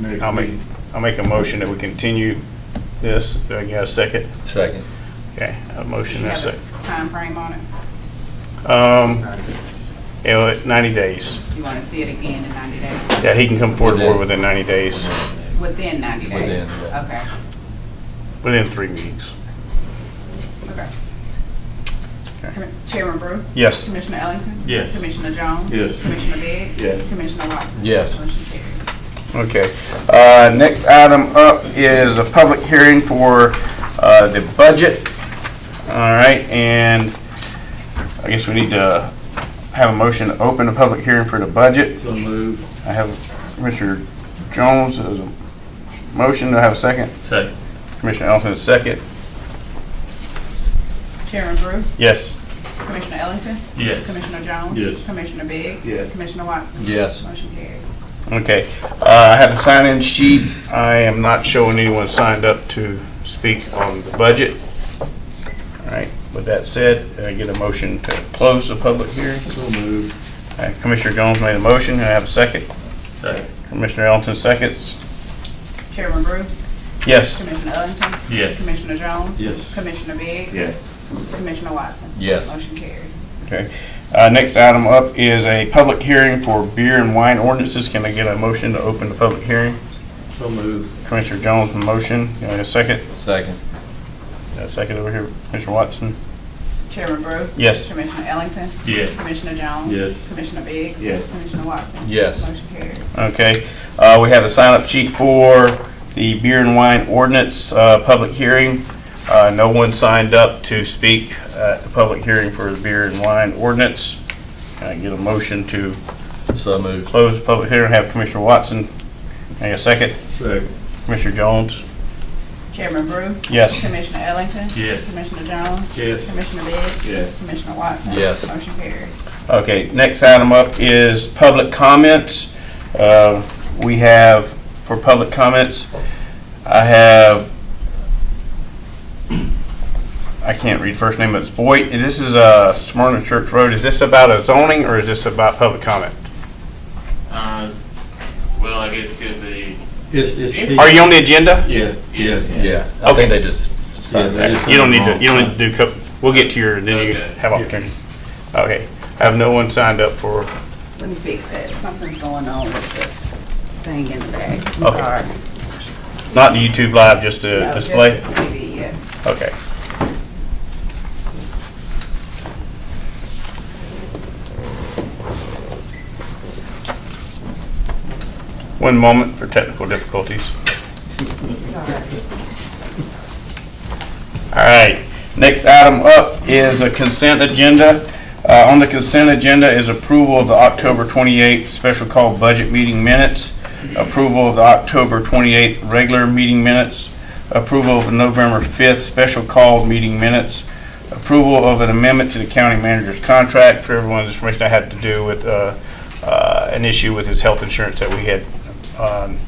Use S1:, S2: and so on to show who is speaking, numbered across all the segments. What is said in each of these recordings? S1: Next
S2: I'll make,
S1: meeting.
S2: I'll make a motion that we continue this. Do I get a second?
S3: Second.
S2: Okay, a
S4: Do
S2: motion
S4: you
S2: and a
S4: have a
S2: second.
S4: timeframe on it?
S2: Um, you know, at 90 days.
S4: You want to see it again in 90 days?
S2: Yeah, he can come forward
S3: Within-
S2: within 90 days,
S4: Within 90 days?
S3: Within,
S4: Okay,
S3: yeah.
S2: within three meetings.
S4: okay.
S2: Okay.
S4: Com- Chairman Brew?
S2: Yes.
S4: Commissioner Ellington?
S2: Yes.
S4: Commissioner Jones?
S1: Yes.
S4: Commissioner Biggs?
S1: Yes.
S4: Commissioner Watson?
S3: Yes.
S4: Motion carries.
S2: Okay. Uh, Next item up is a public hearing for uh, the budget. All right, and I guess we need to have a motion to open a public hearing for the budget.
S1: So move.
S2: I have Commissioner Jones as a motion. Do I have a second?
S1: Second.
S2: Commissioner Ellington, a second.
S4: Chairman Brew?
S2: Yes.
S4: Commissioner Ellington?
S1: Yes.
S4: Commissioner Jones?
S1: Yes.
S4: Commissioner Biggs?
S1: Yes.
S4: Commissioner Watson?
S3: Yes.
S4: Motion carries.
S2: Okay, uh, I have a sign-in sheet. I am not showing anyone signed up to speak on the budget. All right, with that said, I get a motion to close the public hearing.
S1: So move.
S2: All right, Commissioner Jones made a motion, and I have a second.
S1: Second.
S2: Commissioner Ellington seconds.
S4: Chairman Brew?
S2: Yes,
S4: Commissioner Ellington?
S1: Yes.
S4: Commissioner Jones?
S1: Yes.
S4: Commissioner Biggs?
S1: Yes.
S4: Commissioner Watson?
S3: Yes.
S4: Motion carries.
S2: okay. Uh, Next item up is a public hearing for beer and wine ordinances. Can I get a motion to open the public hearing?
S1: So move.
S2: Commissioner Jones, motion, Can I get a second.
S3: Second.
S2: Got a second over here, Commissioner Watson.
S4: Chairman Brew?
S2: Yes.
S4: Commissioner Ellington?
S1: Yes.
S4: Commissioner Jones?
S1: Yes.
S4: Commissioner Biggs?
S1: Yes.
S4: Commissioner Watson?
S3: Yes.
S4: Motion carries.
S2: Okay, uh, we have a sign-up sheet for the beer and wine ordinance, uh, public hearing. Uh, no one signed up to speak at the public hearing for the beer and wine ordinance. Can I get a motion to
S3: So moved.
S2: close the public hearing, have Commissioner Watson? Can I get a second?
S1: Second.
S2: Commissioner Jones?
S4: Chairman Brew?
S2: Yes.
S4: Commissioner Ellington?
S1: Yes.
S4: Commissioner Jones?
S1: Yes.
S4: Commissioner Biggs?
S1: Yes.
S4: Commissioner Watson?
S3: Yes.
S4: Motion carries.
S2: Okay, next item up is public comments. Uh, We have, for public comments, I have, I can't read first name, but it's Boyd. This is uh, Smyrna Church Road. Is this about a zoning or is this about public comment?
S5: Uh, Well, I guess it could be,
S1: It's, it's.
S2: Are you on the agenda?
S1: Yes, yes.
S3: Yeah, I
S2: Okay.
S3: think they just
S1: Yeah,
S3: signed
S1: that
S3: that.
S1: is-
S2: You don't need to, you don't need to do, co- we'll get to your, then you
S5: Okay.
S2: have opportunity. Okay, I have no one signed up for,
S4: Let me fix that. Something's going on with the thing in the back. I'm
S2: Okay.
S4: sorry.
S2: not the YouTube live, just the
S4: No, just
S2: display?
S4: the TV, yeah.
S2: Okay. One moment for technical difficulties.
S4: Sorry.
S2: All right, next item up is a consent agenda. Uh, On the consent agenda is approval of the October 28th special call budget meeting minutes, approval of the October 28th regular meeting minutes, approval of the November 5th special call meeting minutes, approval of an amendment to the county manager's contract. For everyone's information, I had to do with uh, uh, an issue with his health insurance that we had um,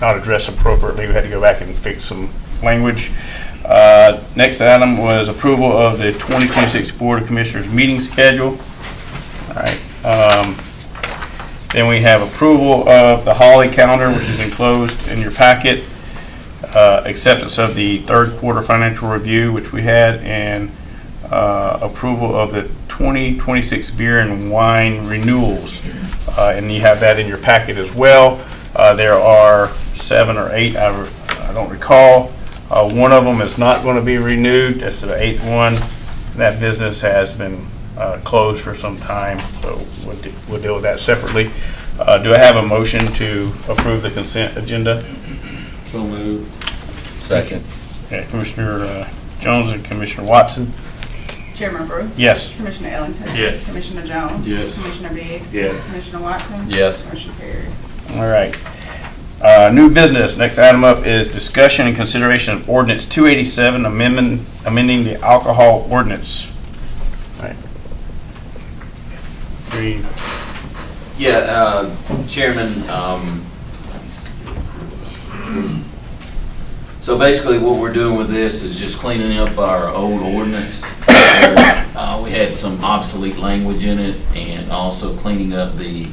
S2: not addressed appropriately. We had to go back and fix some language. Uh, Next item was approval of the 2026 Board of Commissioners meeting schedule. All right. um, Then we have approval of the Holly calendar, which is enclosed in your packet. Uh, Acceptance of the third quarter financial review, which we had, and uh, approval of the 2026 beer and wine renewals. Uh, And you have that in your packet as well. Uh, There are seven or eight, I re- I don't recall. Uh, One of them is not going to be renewed, that's the eighth one. That business has been uh, closed for some time, so we'll de- we'll deal with that separately. Uh, Do I have a motion to approve the consent agenda?
S1: So move.
S3: Second.
S2: Okay, Commissioner uh, Jones and Commissioner Watson?
S4: Chairman Brew?
S2: Yes.
S4: Commissioner Ellington?
S1: Yes.
S4: Commissioner Jones?
S1: Yes.
S4: Commissioner Biggs?
S1: Yes.
S4: Commissioner Watson?
S3: Yes.
S4: Motion carries.
S2: All right. Uh, New business, next item up is discussion and consideration of ordinance 287, amendment, amending the alcohol ordinance. All right. Three,
S6: Yeah, uh, Chairman, um, so basically what we're doing with this is just cleaning up our old ordinance. Uh, We had some obsolete language in it and also cleaning up the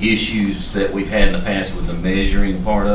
S6: issues that we've had in the past with the measuring part of